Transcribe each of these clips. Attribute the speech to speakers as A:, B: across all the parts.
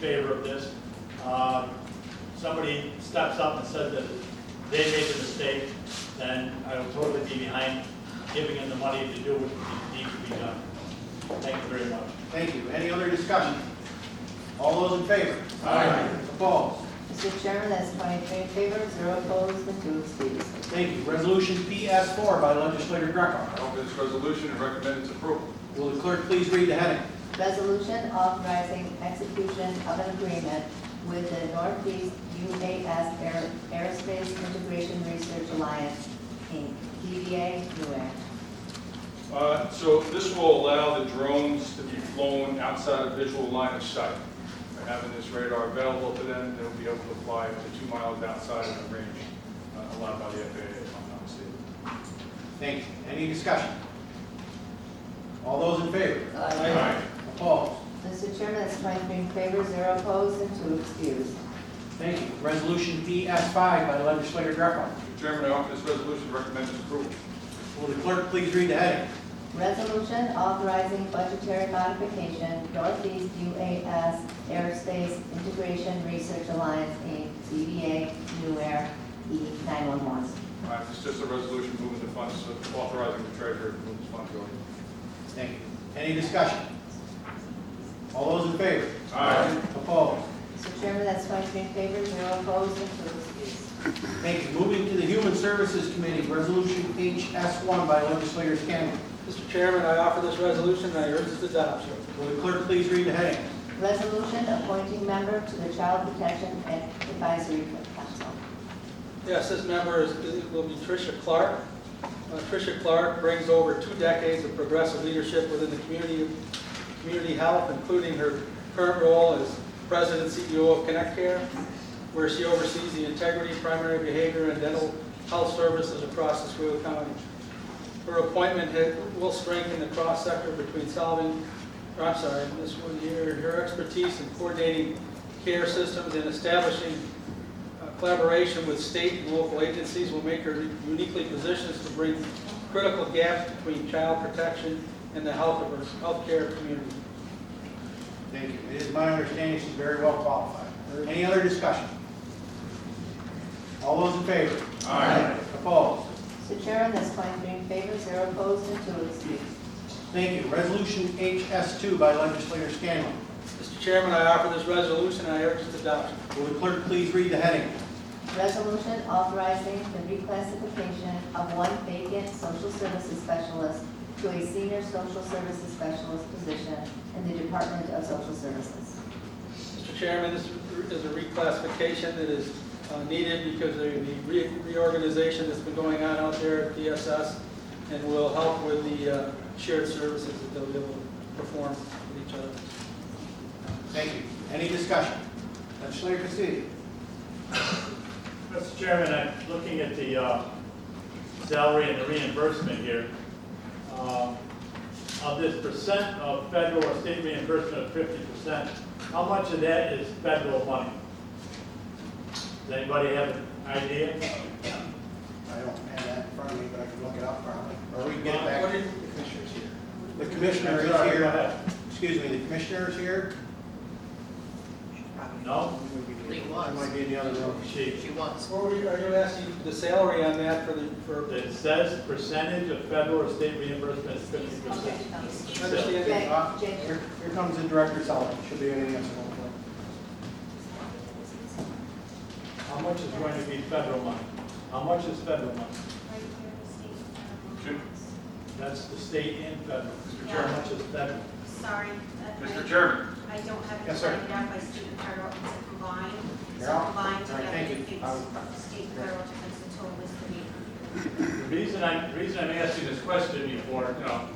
A: favor of this. Um, Somebody steps up and says that they made a mistake, then I will totally be behind giving them the money to do what needs to be done. Thank you very much.
B: Thank you. Any other discussion? All those in favor?
C: Aye.
B: Opposed?
D: Mr. Chairman, that's twenty-three in favor, zero opposed, and two abstentions.
B: Thank you. Resolution PS four by legislator Greco.
C: I offer this resolution and recommend its approval.
B: Will the clerk please read the heading?
D: Resolution authorizing execution of an agreement with the Northeast UAS Air- Aerospace Integration Research Alliance, Inc., DBA NUAC.
C: Uh, So this will allow the drones to be flown outside of visual line of sight. By having this radar available to them, they'll be able to fly up to two miles outside of the range uh, allowed by the FAA, if I'm not mistaken.
B: Thank you. Any discussion? All those in favor?
C: Aye.
B: Opposed?
D: Mr. Chairman, that's twenty-three in favor, zero opposed, and two excused.
B: Thank you. Resolution PS five by legislator Greco.
C: Mr. Chairman, I offer this resolution and recommend its approval.
B: Will the clerk please read the heading?
D: Resolution authorizing budgetary modification, Northeast UAS Aerospace Integration Research Alliance, Inc., DBA NUAC, E911.
C: All right, It's just a resolution moving the funds, authorizing the treasurer to move the funds over.
B: Thank you. Any discussion? All those in favor?
C: Aye.
B: Opposed?
D: Mr. Chairman, that's twenty-three in favor, zero opposed, and two excused.
B: Thank you. Moving to the Human Services Committee, Resolution HS one by legislator Scanlon.
E: Mr. Chairman, I offer this resolution and I urge its adoption.
B: Will the clerk please read the heading?
D: Resolution appointing member to the Child Protection and Advisory Council.
E: Yes, this member is, it will be Tricia Clark. Uh, Tricia Clark brings over two decades of progressive leadership within the community, community health, including her current role as president and CEO of Connect Care, where she oversees the integrity, primary behavior, and dental health services across Oswego County. Her appointment ha- will strengthen the cross-sector between solving, or I'm sorry, this one here, her expertise in coordinating care systems and establishing uh, collaboration with state and local agencies will make her uniquely positioned to bring critical gaps between child protection and the health of our healthcare community.
B: Thank you. It is my understanding she's very well qualified. Any other discussion? All those in favor?
C: Aye.
B: Opposed?
D: Mr. Chairman, that's 23 in favor, zero opposed, and two excused.
B: Thank you. Resolution HS2 by legislator Scanlon.
E: Mr. Chairman, I offer this resolution and I urge its adoption.
B: Will the clerk please read the heading?
D: Resolution authorizing the reclassification of one vacant social services specialist to a senior social services specialist position in the Department of Social Services.
E: Mr. Chairman, this is a reclassification that is uh, needed because of the re- reorganization that's been going on out there at DSS and will help with the uh, shared services that they'll be able to perform with each other.
B: Thank you. Any discussion? Legislator Castillo.
A: Mr. Chairman, I'm looking at the uh, salary and the reimbursement here. Um, Of this percent of federal or state reimbursement of fifty percent, how much of that is federal money? Does anybody have an idea?
B: I don't have that in front of me, but I can look it up probably. Or we can get it back.
E: What did the commissioners here?
B: The commissioner is
A: Sorry, go
B: here.
A: ahead.
B: Excuse me, the commissioner is here.
A: No?
F: He
B: I might
F: was,
B: be in the other room.
A: She,
F: she was.
E: Or we- are you asking the salary on that for the, for,
A: it says percentage of federal or state reimbursement is fifty percent.
E: understand?
D: Jay,
B: Uh,
D: Jay.
B: Here here comes the director, Sullivan. Should be in the answer. Uh,
A: How much is going to be federal money? How much is federal money?
G: right here, the state.
C: Should-
A: That's the state and federal.
C: Mr.
A: How
C: Chairman.
A: much is federal?
G: Sorry. that-
C: Mr. Chairman,
G: I don't have it
B: Yes, sir.
G: lined up by student federal, it's combined. So
B: Yeah.
G: combined
B: All right,
G: together,
B: thank you.
G: it gives
B: I'll-
G: state federal difference, the total is thirty.
A: The reason I, the reason I'm asking this question before, you know, um,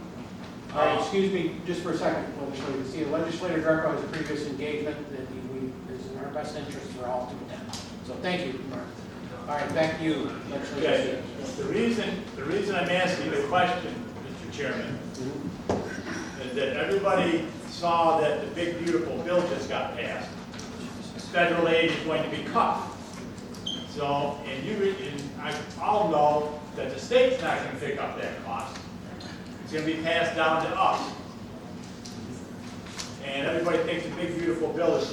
B: All right, excuse me, just for a second, legislator Castillo. Legislator Greco has a previous engagement that he- we, is in our best interest for all to attend. So thank you. All right, back to you, legislator
A: okay,
B: Castillo.
A: the reason, the reason I'm asking the question, Mr. Chairman, is that everybody saw that the big beautiful bill just got passed. Federal aid is going to be cut. So, and you, and I all know that the state's not gonna pick up that cost. It's gonna be passed down to us. And everybody thinks the big beautiful bill is